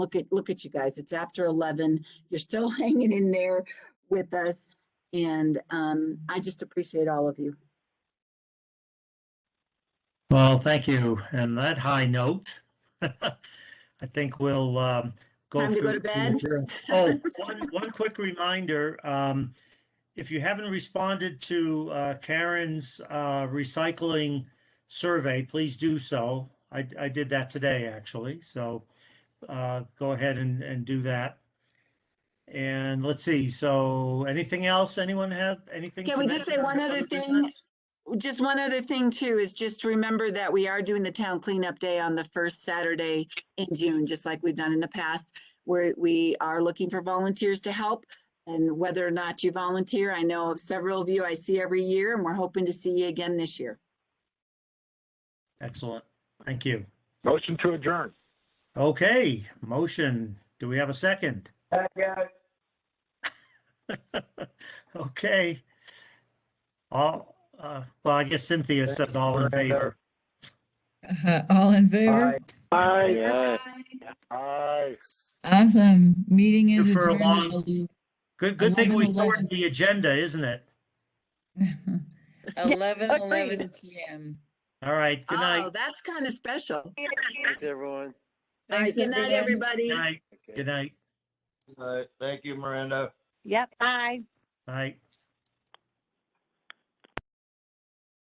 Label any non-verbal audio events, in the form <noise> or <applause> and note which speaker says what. Speaker 1: Look at, look at you guys. It's after 11. You're still <laughs> hanging in there with us. And um, I just appreciate all of you.
Speaker 2: Well, thank you. And that high note, <laughs> I think we'll um, go.
Speaker 1: Time to go
Speaker 2: through-
Speaker 1: to bed?
Speaker 2: adjourn. Oh, one, one quick reminder, um, if you haven't responded to uh, Karen's uh, recycling survey, please do so. I, I did that today, actually, so uh, go ahead and, and do that. And let's see, so anything else? Anyone have anything?
Speaker 1: Can
Speaker 2: to
Speaker 1: we just
Speaker 2: mention
Speaker 1: say one
Speaker 2: under
Speaker 1: other thing?
Speaker 2: business?
Speaker 1: Just one other thing too, is just remember that we are doing the town cleanup day on the first Saturday in June, just like we've done in the past. Where we are looking for volunteers to help and whether or not you volunteer, I know of several of you I see every year and we're hoping to see you again this year.
Speaker 2: Excellent, thank you.
Speaker 3: Motion to adjourn.
Speaker 2: Okay, motion. Do we have a second? <laughs> Okay. All, uh, well, I guess Cynthia says all in favor.
Speaker 4: Uh-huh. All in favor?
Speaker 3: Aye. Aye.
Speaker 4: Awesome. Meeting is
Speaker 2: You for a
Speaker 4: adjourned.
Speaker 2: long- Good, good thing we
Speaker 4: 11,
Speaker 2: sorted the agenda, isn't it?
Speaker 1: <laughs>
Speaker 4: Eleven,
Speaker 1: agreed.
Speaker 4: eleven PM.
Speaker 2: All right, good night.
Speaker 1: Oh, that's kind of special.
Speaker 5: Thanks, everyone.
Speaker 1: All right,
Speaker 4: Thanks,
Speaker 1: good night,
Speaker 4: everyone.
Speaker 1: everybody.
Speaker 2: Good night, good night,
Speaker 3: Aye. Thank you, Miranda.
Speaker 6: Yep, bye.
Speaker 2: Bye.